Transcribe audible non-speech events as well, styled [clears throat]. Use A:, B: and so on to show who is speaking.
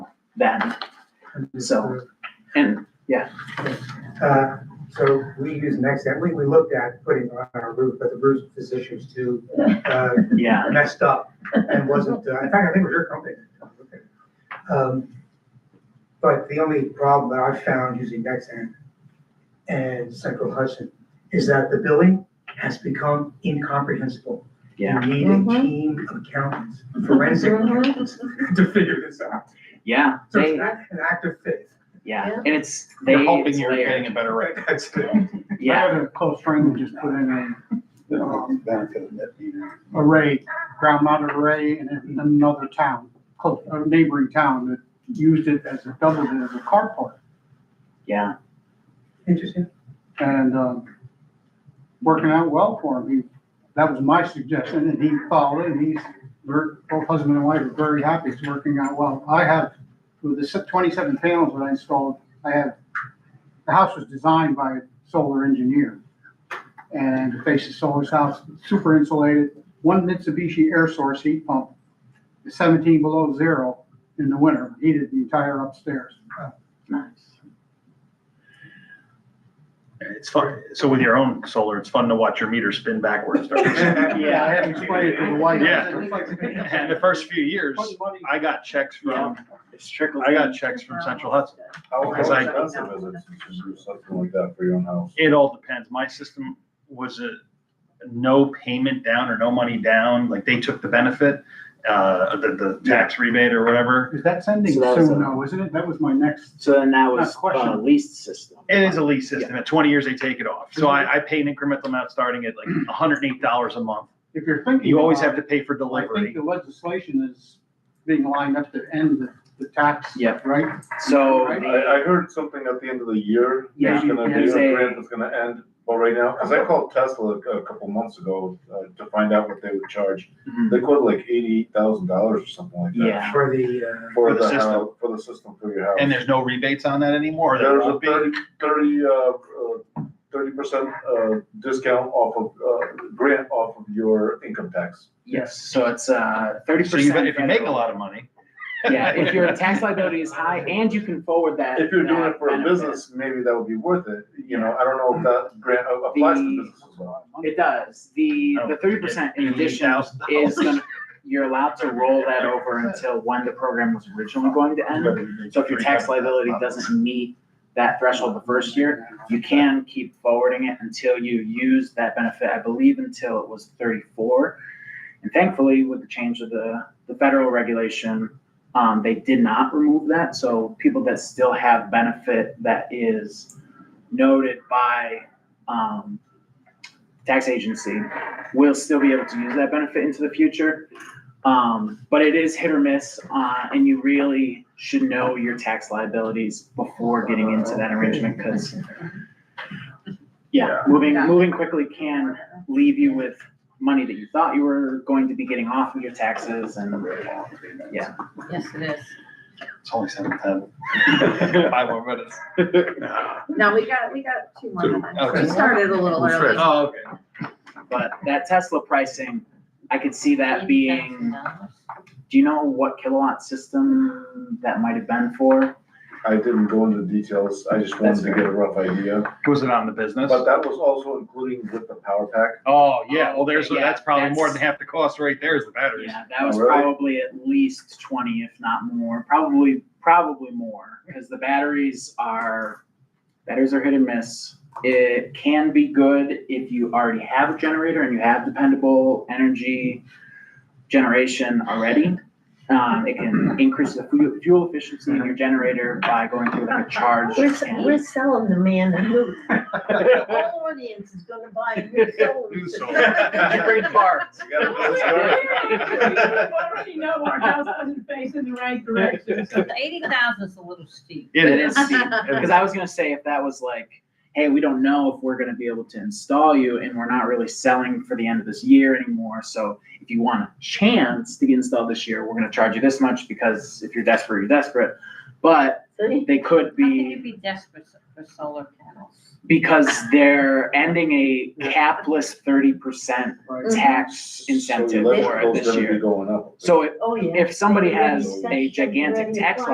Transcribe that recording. A: then. So, and
B: Uh, So we use next step, we, we looked at putting on our roof, but the roof is issues too, uh,
A: yeah,
B: messed up and wasn't, uh, in fact, I think it was your company. Um, But the only problem that I've found using Nexan and Central Hudson is that the billing has become incomprehensible.
A: yeah,
B: You need a
C: Mhm.
B: team of accountants, forensic accountants [laughs] to figure this out.
A: yeah,
B: So it's
A: they,
B: an act, an act of faith.
A: yeah,
C: Yeah.
A: and it's, they,
D: You're hoping
A: it's
D: you're
A: layered,
D: getting a better rate.
B: That's it.
E: I
A: yeah,
E: had a close friend who just put in
F: Um, Benefit of that meter.
E: a array, ground mounted array in another town, close, a neighboring town that used it as a double, as a carport.
A: yeah,
B: Interesting.
E: And, um, working out well for him. He, that was my suggestion and he followed it and he's, we're, both husband and wife are very happy. It's working out well. I have, with the twenty-seven panels that I installed, I have, the house was designed by a solar engineer. And the face of solar's house, super insulated, one Mitsubishi air source heat pump, seventeen below zero in the winter, heated the entire upstairs.
A: nice,
D: It's fun. So with your own solar, it's fun to watch your meter spin backwards. [laughs]
E: Yeah, I haven't explained it to the wife.
D: Yeah.
E: Put
D: And the first few years,
E: money
D: I got checks from,
A: it's trickled.
D: I got checks from Central Hudson.
F: How
D: Because I-
F: expensive is it to do something like that for your own house?
D: It all depends. My system was a no payment down or no money down, like they took the benefit, uh, the, the tax rebate or whatever.
E: Is that sending
A: So that was
E: soon
A: a-
E: though, isn't it? That was my next,
A: So then that was
E: Not question.
A: uh, leased system.
D: It is a lease system. At twenty years, they take it off. So I, I pay an incremental amount starting [clears throat] at like hundred and eight dollars a month.
E: if you're thinking.
D: You always have
E: about
D: to pay for
E: it, I think
D: delivery.
E: the legislation is being lined up to end the, the tax.
A: Yeah.
E: Right?
D: [laughs]
G: [laughs]
A: So, uh,
F: I,
A: the-
F: I heard something at the end of the year,
A: Yeah.
F: there's gonna be
A: There's
F: a
A: a-
F: grant that's gonna end, but right now, cause I called Tesla a a couple months ago, uh, to find out what they would charge.
A: Mhm.
F: They quoted like eighty-eight thousand dollars or something like that.
A: yeah,
B: For the, uh,
F: For
D: For the
F: the
D: system.
F: house, for the system for your house.
D: And there's no rebates on that anymore? or there
F: There's a
D: won't be?
F: thirty, thirty, uh, thirty percent, uh, discount off of, uh, grant off of your income tax.
A: yes, so it's, uh, thirty
D: So
A: percent.
D: you, bet- if you make a lot of money.
A: Yeah, if your tax liability is high and you can forward that.
F: If you're doing
A: that
F: it for a
A: benefit.
F: business, maybe that would be worth it, you know, I don't know if that grant applies to
A: The-
F: business as well.
A: It does, the,
D: Oh,
A: the thirty percent in addition
D: $88,000.
A: is gonna, you're allowed to roll that over until when the program was originally going to end. So if your tax liability doesn't meet that threshold the first year, you can keep forwarding it until you use that benefit, I believe until it was thirty-four. And thankfully, with the change of the, the federal regulation, um, they did not remove that, so people that still have benefit that is noted by, um, tax agency will still be able to use that benefit into the future. Um, but it is hit or miss, uh, and you really should know your tax liabilities before getting into that arrangement, because yeah, moving,
C: Yeah.
A: moving quickly can leave you with money that you thought you were going to be getting off of your taxes and, yeah.
C: Yes, it is.
D: It's only seven [laughs] ten. Five more minutes.
C: No, we got, we got two more
D: Two,
C: minutes.
D: okay.
C: We started a little
D: Who's
C: early.
D: first? Oh, okay.
A: But that Tesla pricing, I could see that being, do you know what kilowatt system that might have been for?
F: I didn't go into details, I just wanted
A: That's
F: to get a rough idea,
D: Was it on the business?
F: but that was also including with the power pack.
D: Oh, yeah, well, there's,
A: Yeah,
D: that's probably more than
A: that's-
D: half the cost right there is the [laughs] batteries.
A: Yeah, [laughs] that was
F: Oh, really?
A: probably at least twenty, if not more, probably, probably more, because the batteries are, batteries are hit and miss. It can be good if you already have a generator and you have dependable energy generation already. Um, it can increase the fu- fuel efficiency in your generator by going through like a charge.
C: We're, s-
A: and-
C: we're selling the man a new. The whole audience is gonna buy a new solar. [laughs]
D: New solar.
A: Did you bring parts?
F: You gotta put this right.
G: already know our house doesn't face in the right direction, so
H: Eighty thousand is a little steep.
D: It
C: [laughs]
D: is.
A: Because I was gonna say if that was like, hey, we don't know if we're gonna be able to install you and we're not really selling for the end of this year anymore. So if you want a chance to get installed this year, we're gonna charge you this much because if you're desperate, you're desperate. But
C: See?
A: they could
H: How can you
A: be
H: be desperate for solar panels?
A: because they're ending a capless thirty percent
E: Right.
A: tax
F: So
A: incentive for it
F: electrical's
A: this
F: gonna be
A: year.
F: Going up.
A: So if,
C: Oh, yeah.
A: if somebody has a gigantic tax